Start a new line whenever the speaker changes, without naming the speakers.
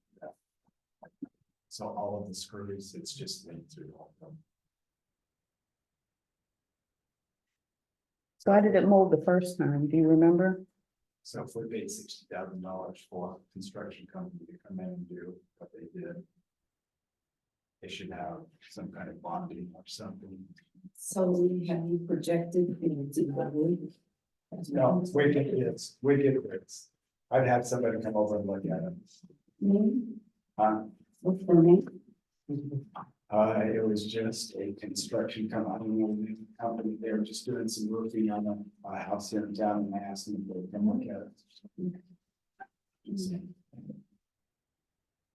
So all of the screws, it's just linked through all of them.
So how did it mold the first time? Do you remember?
So if we paid sixty thousand dollars for a construction company to come in and do what they did. They should have some kind of bonding or something.
So we have you projected into the week?
No, we get bids, we get bids. I'd have somebody come over and look at them.
Me,
Uh,
what's the name?
Uh, it was just a construction company, company, they were just doing some roofing on a, a house here in town and I asked them to come look at it.